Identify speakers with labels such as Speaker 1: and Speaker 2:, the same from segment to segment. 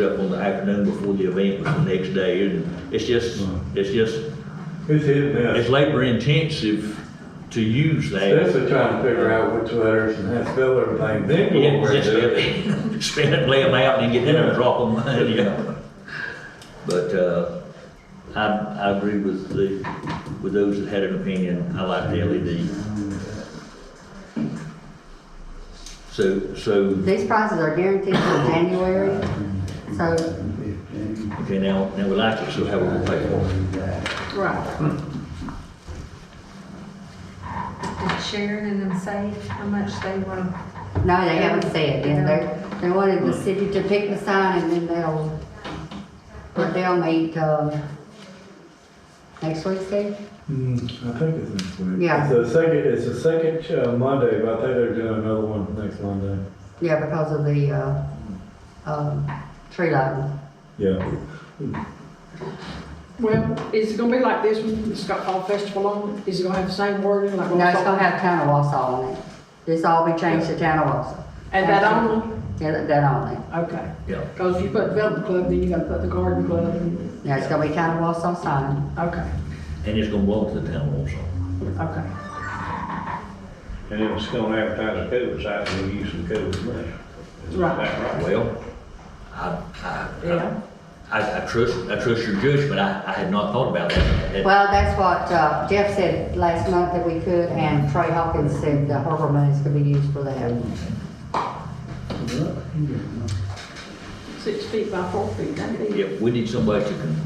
Speaker 1: up on the afternoon before the event was the next day, and it's just, it's just,
Speaker 2: It's his
Speaker 1: it's
Speaker 2: mess.
Speaker 1: labor intensive to use that.
Speaker 2: That's what trying to figure out which letters and how to spell everything, then go
Speaker 1: Yeah,
Speaker 2: over and
Speaker 1: just
Speaker 2: do it.
Speaker 1: Spin it, lay them out, and get in there and drop them, yeah. But, uh, I, I agree with the, with those that had an opinion, I like the E LED. So, so,
Speaker 3: These prices are guaranteed for January, so,
Speaker 1: okay, now, now we like it, so how we gonna pay for it?
Speaker 3: right.
Speaker 4: Did Sharon and them say how much they want to?
Speaker 3: No, they haven't said, yet. they, they wanted the city to pick the sign and then they'll, but they'll meet, um, next Wednesday?
Speaker 2: Mm, I think it's next week.
Speaker 3: Yeah.
Speaker 2: It's the second, it's the second uh, Monday, but I think they're doing another one next Monday.
Speaker 3: Yeah, because of the, uh, um, tree lighting.
Speaker 2: Yeah.
Speaker 5: Well, is it gonna be like this one, it's got Fall Festival on, it? is it gonna have the same wording like?
Speaker 3: No, it's gonna have town of Wausau on it. This all be changed to town of Wausau.
Speaker 5: And that only?
Speaker 3: Yeah, that- that only.
Speaker 5: Okay,
Speaker 1: Yeah.
Speaker 5: cause if you put Development Club, then you gotta put the Garden Club, and-
Speaker 3: Yeah, it's gonna be town of Wausau sign.
Speaker 5: okay,
Speaker 1: And it's gonna belong to the town also.
Speaker 5: okay.
Speaker 6: And it was still advertised code, so I can use some code money. Is that right?
Speaker 1: Well, I, I- I,
Speaker 5: Yeah.
Speaker 1: I, I trust, I trust your judgment, I, I had not thought about that. That-
Speaker 3: Well, that's what uh, Jeff said last month that we could, and Trey Hawkins said the harbor monies could be used for that.
Speaker 5: Six feet by four feet, that'd be,
Speaker 1: If we need somebody to, con-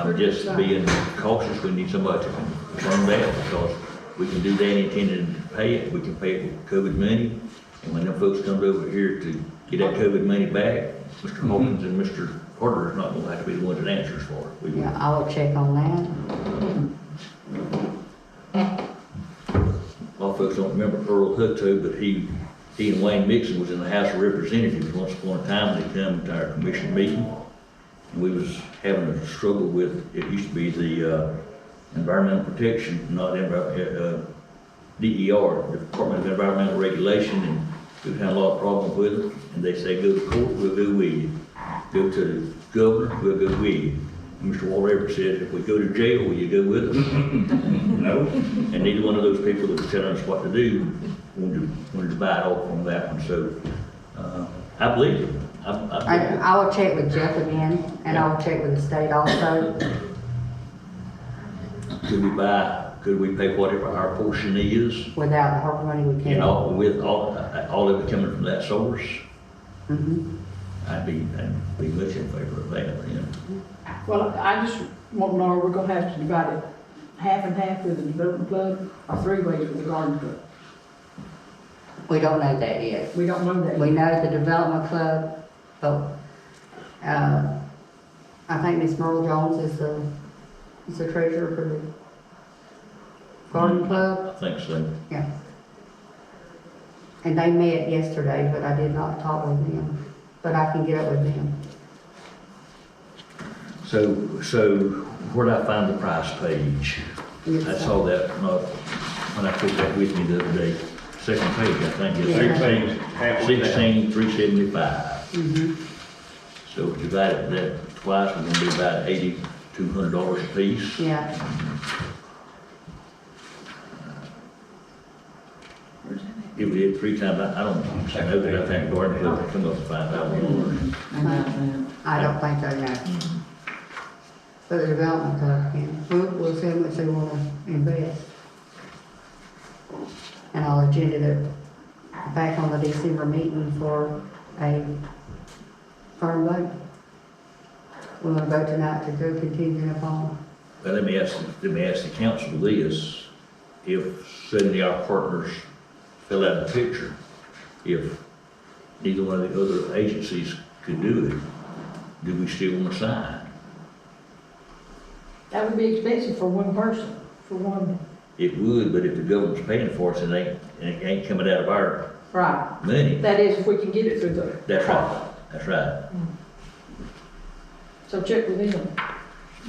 Speaker 1: I'm just being cautious, we need somebody to confirm that, because we can do that intending to pay it, we can pay it with COVID money, and when them folks comes over here to get that COVID money back, Mr. Hawkins and Mr. Carter is not gonna have to be the one that answers for it. We will-
Speaker 3: Yeah, I will check on that.
Speaker 1: A lot of folks don't remember Earl Hutto, but he, he and Wayne Mixon was in the House of Representatives once upon a time, and they come to our commission meeting. And we was having a struggle with, it used to be the, uh, Environmental Protection, not, envi- uh, uh, DER, Department of Environmental Regulation, and we've had a lot of problems with it. And they say, go to court, we'll go with you. Go to the governor, we'll go with you. And Mr. Walt Everett said, if we go to jail, will you go with us? No, and neither one of those people that was telling us what to do wanted to, wanted to buy it off on that one, so, uh, I believe it. I, I
Speaker 3: I,
Speaker 1: believe it.
Speaker 3: I will check with Jeff again, and I will check with the state also.
Speaker 1: Could we buy, could we pay whatever our portion is,
Speaker 3: Without the harbor money, we
Speaker 1: and
Speaker 3: can't.
Speaker 1: all, with all, uh, all of it coming from that source?
Speaker 3: Mhm.
Speaker 1: I'd be, I'd be much in favor of that, then.
Speaker 5: well, I just want to know, we're gonna have to divide it half and half with the Development Club, or three ways with the Garden Club,
Speaker 3: We don't know that yet.
Speaker 5: we don't know that.
Speaker 3: We know the development club, but, uh, I think Miss Merle Jones is the, is the treasurer for the garden club.
Speaker 1: I think so.
Speaker 3: Yeah. And they met yesterday, but I did not talk with them, but I can get up with them.
Speaker 1: So, so where'd I find the price page? I saw that, uh, when I took that with me the other day, second page, I think, it's
Speaker 3: Yeah.
Speaker 6: Sixteen, half of that.
Speaker 1: sixteen, three sevendifive.
Speaker 3: Mhm.
Speaker 1: So if you divide that twice, we're gonna be about eighty-two hundred dollars a piece.
Speaker 3: Yeah,
Speaker 1: If we did three times, I I don't know that I think Gordon Club would come up to five thousand dollars.
Speaker 3: I don't think they know. But the development club can, we'll, we'll see how much they wanna invest. And I'll agenda it back on the December meeting for a firm vote. We're gonna vote tonight to go contingent upon,
Speaker 1: Well, let me ask, let me ask the council this, if suddenly our partners fill out a picture, if neither one of the other agencies could do it, do we still wanna sign?
Speaker 5: That would be expensive for one person, for one,
Speaker 1: It would, but if the government's paying for it, it ain't, it ain't coming out of our
Speaker 5: right,
Speaker 1: money.
Speaker 5: that is if we can get it through the.
Speaker 1: That's right, that's right.
Speaker 5: So check with him,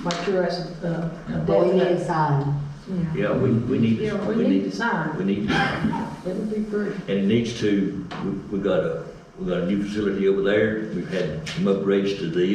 Speaker 5: make sure that's, uh,
Speaker 3: but we need
Speaker 5: definite.
Speaker 3: a sign.
Speaker 1: Yeah, we, we need,
Speaker 5: You know,
Speaker 1: to-
Speaker 5: we
Speaker 1: we
Speaker 5: need to
Speaker 1: need,
Speaker 5: sign,
Speaker 1: we need, to-
Speaker 5: it would be great.
Speaker 1: and it needs to, we, we got a, we got a new facility over there. We've had some upgrades to the